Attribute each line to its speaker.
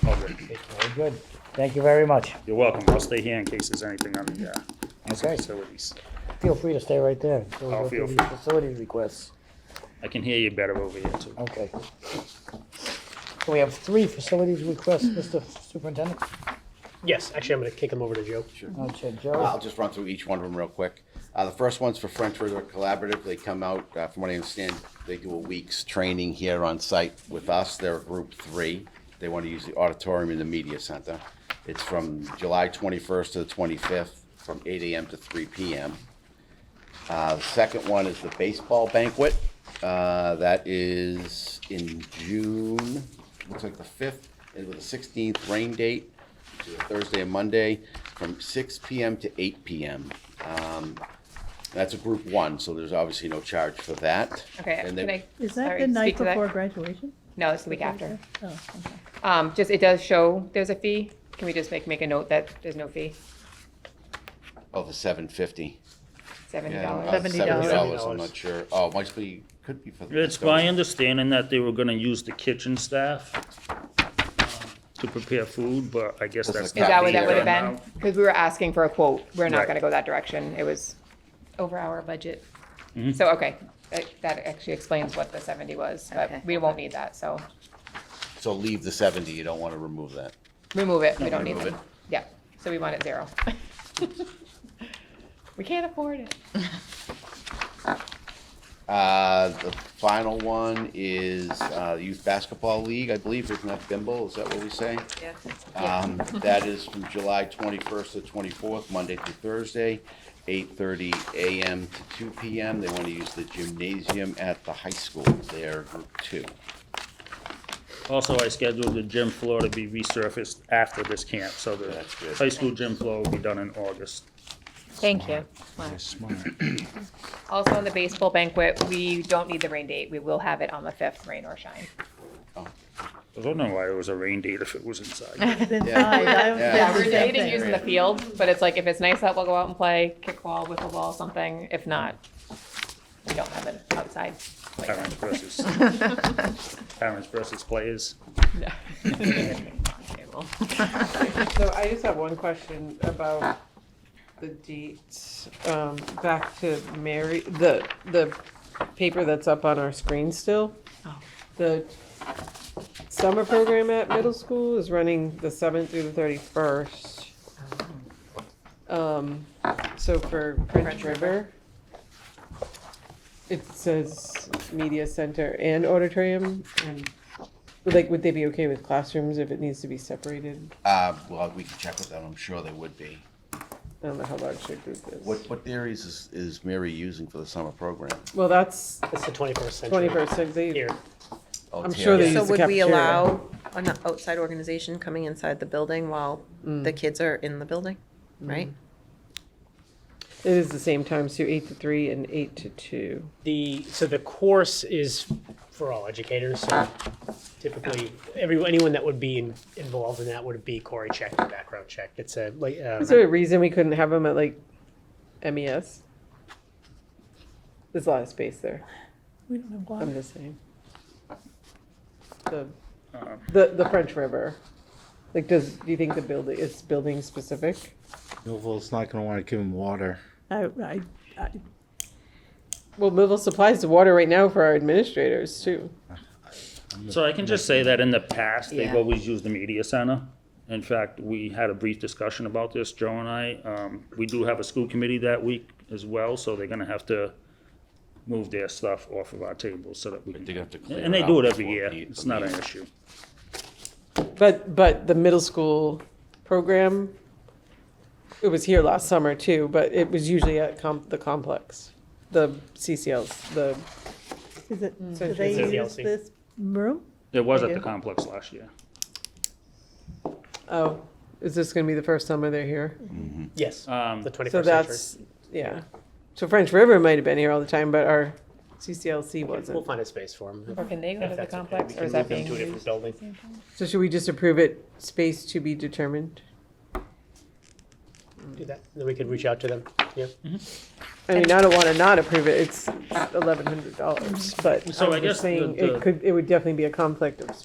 Speaker 1: Very good. Thank you very much.
Speaker 2: You're welcome. I'll stay here in case there's anything on the, uh, on some
Speaker 1: Okay.
Speaker 2: facilities.
Speaker 1: Feel free to stay right there. until we
Speaker 2: I'll
Speaker 1: go through
Speaker 2: feel
Speaker 1: these
Speaker 2: free.
Speaker 1: Facility requests.
Speaker 2: I can hear you better over here too.
Speaker 3: Oh.
Speaker 1: Okay. So we have three facilities requests, Mr. Superintendent.
Speaker 4: Yes, actually, I'm going to kick them over to Joe.
Speaker 1: I'll check
Speaker 3: I'll
Speaker 1: Joe.
Speaker 3: just run through each one of them real quick. Uh, the first one's for French River Collaborative. They come out, uh, from what I understand, they do a week's training here on site with us. They're a group three. They want to use the auditorium in the media center. It's from July twenty-first to the twenty-fifth, from eight AM to three PM. Uh, the second one is the baseball banquet. Uh, that is in June, looks like the fifth, and with the sixteenth rain date, which is a Thursday and Monday, from six PM to eight PM. Um, that's a group one, so there's obviously no charge for that.
Speaker 5: Okay,
Speaker 3: And
Speaker 5: can
Speaker 3: then-
Speaker 5: I?
Speaker 6: Is that
Speaker 5: sorry,
Speaker 6: the night
Speaker 5: speak to that?
Speaker 6: before graduation?
Speaker 5: No, it's the week after.
Speaker 6: Oh, okay.
Speaker 5: Um, just, it does show there's a fee. Can we just make, make a note that there's no fee?
Speaker 3: Oh, the seven fifty.
Speaker 5: Seventy
Speaker 3: Yeah, uh,
Speaker 5: dollars.
Speaker 6: Seventy dollars.
Speaker 3: $70, I'm not sure. Oh, might be, could be for the.
Speaker 2: It's my understanding that they were gonna use the kitchen staff uh, to prepare food, but I guess
Speaker 3: That's
Speaker 2: that's.
Speaker 3: the
Speaker 5: Is
Speaker 2: not
Speaker 5: that what
Speaker 2: being
Speaker 5: that would have
Speaker 2: done
Speaker 5: been?
Speaker 2: now.
Speaker 5: Because we were asking for a quote. We're not
Speaker 2: Right.
Speaker 5: gonna go that direction. It was over our budget.
Speaker 3: Mm-hmm.
Speaker 5: So, okay, that, that actually explains what the seventy was,
Speaker 7: Okay.
Speaker 5: but we won't need that, so
Speaker 3: So leave the seventy, you don't want to remove that.
Speaker 5: remove it. We don't need
Speaker 3: remove
Speaker 5: it.
Speaker 3: it.
Speaker 5: Yeah, so we want it zero. We can't afford it.
Speaker 3: Uh, the final one is, uh, Youth Basketball League, I believe, isn't that Bimble, is that what we say?
Speaker 7: Yeah.
Speaker 3: Um, that is from July twenty-first to twenty-fourth, Monday through Thursday, eight-thirty AM to two PM. They want to use the gymnasium at the high school, they're group two.
Speaker 2: Also, I scheduled the gym floor to be resurfaced after this camp, so the
Speaker 3: That's good.
Speaker 2: high school gym floor will be done in August.
Speaker 5: Thank you. Also, on the baseball banquet, we don't need the rain date. We will have it on the fifth, rain or shine.
Speaker 2: I don't know why it was a rain date if it was inside.
Speaker 6: Then
Speaker 3: Yeah.
Speaker 6: fine, I would
Speaker 3: Yeah.
Speaker 6: say
Speaker 5: Yeah,
Speaker 6: the
Speaker 5: we're
Speaker 6: same
Speaker 5: dating
Speaker 6: thing.
Speaker 5: using the field, but it's like if it's nice out, we'll go out and play kickball, wiffle ball, something. If not, we don't have it outside. like that.
Speaker 2: Parents versus, parents versus players.
Speaker 8: So I just have one question about the dates. Um, back to Mary, the, the paper that's up on our screen still. The summer program at middle school is running the seventh through the thirty-first. Um, so for French River, it says media center and auditorium and like, would they be okay with classrooms if it needs to be separated?
Speaker 3: Uh, well, we can check with them, I'm sure they would be.
Speaker 8: I don't know how large their group is.
Speaker 3: What, what theories is, is Mary using for the summer program?
Speaker 8: Well, that's
Speaker 4: That's the 21st century.
Speaker 8: twenty-first century.
Speaker 4: Here.
Speaker 3: Oh,
Speaker 8: I'm sure they
Speaker 3: Terry.
Speaker 8: use
Speaker 7: So
Speaker 8: the
Speaker 7: would we
Speaker 8: cafeteria.
Speaker 7: allow an outside organization coming inside the building while the kids are in the building, right?
Speaker 8: It is the same time, so eight to three and eight to two.
Speaker 4: The, so the course is for all educators, so typically, everyone, anyone that would be in- involved in that would be Corey checked and background checked. It's a, like, uh,
Speaker 8: Is there a reason we couldn't have them at like MES? There's a lot of space there.
Speaker 6: We don't have water.
Speaker 8: I'm just saying. The, the the French River, like, does do you think the building it's building specific?
Speaker 9: Millville's not gonna wanna give him water.
Speaker 6: I, I, I,
Speaker 8: Well, Millville supplies the water right now for our administrators too.
Speaker 2: So I can just say that in the past, they've
Speaker 7: Yeah.
Speaker 2: always used the media center. In fact, we had a brief discussion about this, Joe and I. Um, we do have a school committee that week as well, so they're gonna have to move their stuff off of our tables so that we can.
Speaker 3: they're gonna have to clear
Speaker 2: And they
Speaker 3: it
Speaker 2: do
Speaker 3: out
Speaker 2: it every
Speaker 3: before
Speaker 2: year.
Speaker 3: the-
Speaker 2: It's not an issue.
Speaker 8: But but the middle school program, it was here last summer too, but it was usually at com- the complex, the CCLs, the
Speaker 6: is it, do
Speaker 8: It's
Speaker 4: a
Speaker 6: they use
Speaker 4: DLC.
Speaker 6: this room?
Speaker 2: It was at
Speaker 6: They
Speaker 2: the
Speaker 6: do?
Speaker 2: complex last year.
Speaker 8: oh, is this going to be the first summer they're here?
Speaker 4: yes,
Speaker 2: Um,
Speaker 4: the 21st
Speaker 8: So
Speaker 4: century.
Speaker 8: that's yeah. So French River might have been here all the time, but our CCLC
Speaker 4: We'll
Speaker 8: wasn't.
Speaker 4: find a space for them.
Speaker 5: Or can they go to the complex, or is
Speaker 4: move
Speaker 5: that
Speaker 4: them
Speaker 5: being
Speaker 4: to a different
Speaker 5: used?
Speaker 4: building.
Speaker 8: So should we just approve it? Space to be determined.
Speaker 4: Do that, then we could reach out to them. Yeah.
Speaker 8: I mean, I don't want to not approve it. It's eleven hundred dollars, but
Speaker 2: So
Speaker 8: I'm
Speaker 2: I
Speaker 8: just
Speaker 2: guess the-
Speaker 8: saying
Speaker 2: the-
Speaker 8: it could. It would definitely be a conflict of